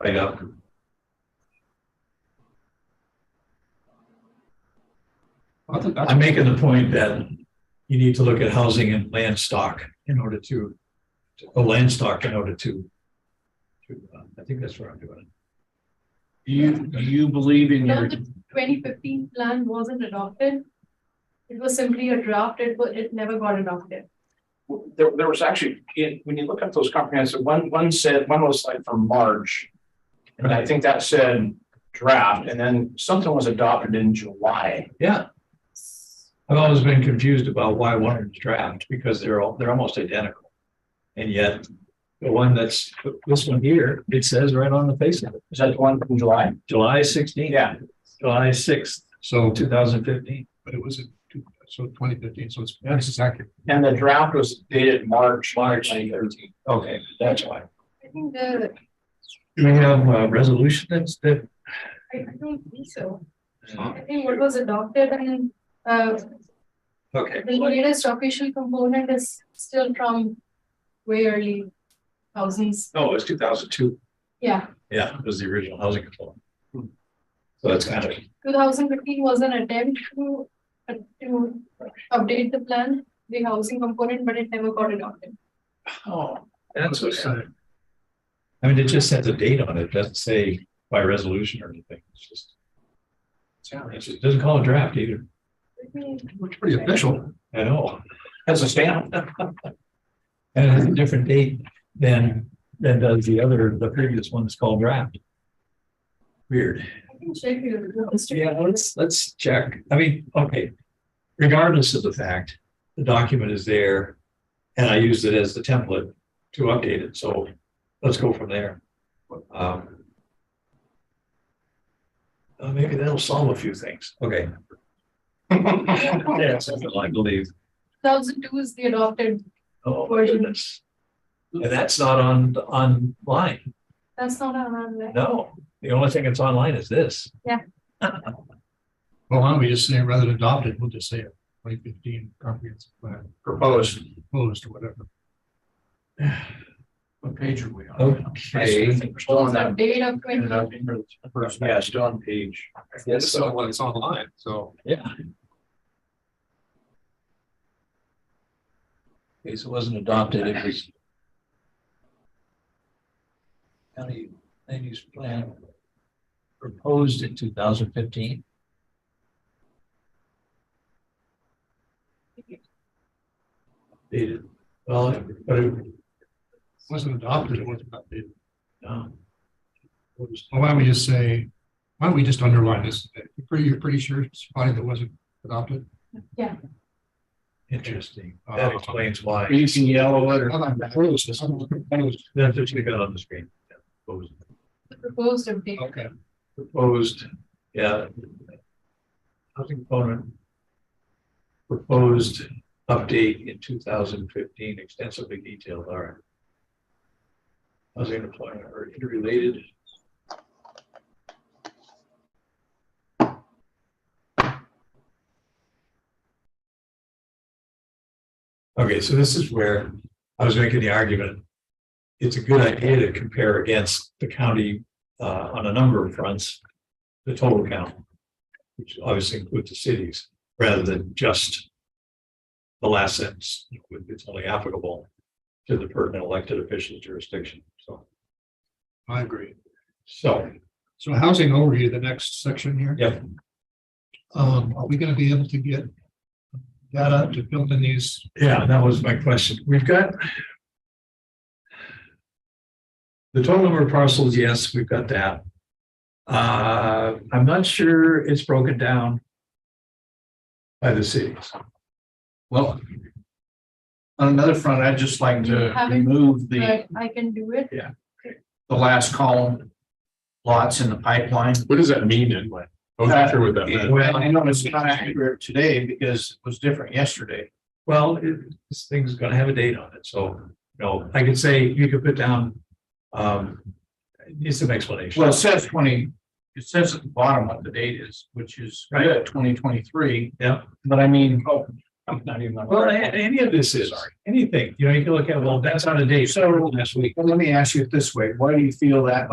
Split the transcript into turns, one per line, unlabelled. I know.
I think that's,
I'm making the point that you need to look at housing and land stock in order to, or land stock in order to. to, uh, I think that's where I'm doing.
do you, do you believe in
No,
your,
the twenty fifteen plan wasn't adopted. It was simply a draft, it wa- it never got adopted.
There, there was actually, in- when you look at those comprehensive, one, one said, one was like from March. And I think that said draft, and then something was adopted in July.
it. Yeah. I've always been confused about why one is draft because they're all, they're almost identical. And yet the one that's, this one here, it says right on the face of it,
Is that the one from July?
July sixteenth.
Yeah.
July sixth,
so,
two thousand fifteen.
but it was, in two- so twenty fifteen, so it's, this is accurate.
And the draft was dated March.
March.
2013.
Okay, that's why.
I think the,
Do we have a resolution that's, that uh,
I I don't think so. I think what was adopted and uh
Okay,
the latest official component is still from way early thousands,
no, it was two thousand two.
yeah.
Yeah, it was the original housing control. So that's kind of,
Two thousand fifteen was an attempt to uh, to update the plan, the housing component, but it never got adopted.
Oh,
that's what, I mean, it just has a date on it, It doesn't say by resolution or anything, it's just,
yeah.
it's- it doesn't call a draft either,
Let me-
Looks pretty official.
at all.
That's a stamp.
And it has a different date than, than does the other, the previous one that's called draft. Weird.
I can check your.
Yeah, let's, let's check. I mean, okay. Regardless of the fact, the document is there and I used it as the template to update it. So let's go from there. Um, uh, maybe that'll solve a few things. Okay. Yeah, something like believe.
Thousand two is the adopted,
Oh, goodness. And that's not on, online.
that's not on our list.
No, the only thing that's online is this.
Well, why don't we just say, rather than adopted, we'll just say it, twenty fifteen comprehensive plan,
Proposed.
proposed or whatever.
What page are we on?
Okay.
We're still on that.
Date of twenty,
Yeah, still on page.
Yes, so-
when it's online, so.
Yeah. Okay, so it wasn't adopted, it was. County land use plan proposed in two thousand fifteen. Dated, well, but it,
Wasn't adopted, it wasn't updated.
um,
Well, Why don't we just say, why don't we just underline this? You're pretty, you're pretty sure it's probably that wasn't adopted?
interesting,
Uh,
that explains why,
You can yellow it or.
I like that. Proposed.
that's what you got on the screen. Yeah, proposed.
the proposed of date.
Okay,
proposed, yeah. Housing component. Proposed update in two thousand fifteen, extensively detailed, all right. Housing and employment are interrelated. Okay, so this is where I was making the argument. It's a good idea to compare against the county uh, on a number of fronts, the total count, which obviously includes the cities, rather than just the last sentence, it's only applicable to the pertinent elected official jurisdiction, so,
I agree.
so,
So housing overview, the next section here.
Yep.
Um, are we gonna be able to get data to build in these?
yeah, that was my question. We've got the total number of parcels, yes, we've got that. Uh, I'm not sure it's broken down by the cities.
Well. On another front, I'd just like to
Haven't-
remove the,
But I can do it.
the last column. Lots in the pipeline. Uh,
What does that mean anyway? I wasn't sure what that meant.
Well, I know it's not accurate today because it was different yesterday.
Well, it- this thing's gonna have a date on it, so, no, I could say, you could put down, um, it needs some explanation.
Well, it says twenty, it says at the bottom what the date is, which is right at twenty twenty-three.
Yeah.
But I mean, oh, I'm not even.
Well, a- any of this is, anything, you know, you can look at, well, that's on a date, so last week.
Well, let me ask you it this way. Why do you feel that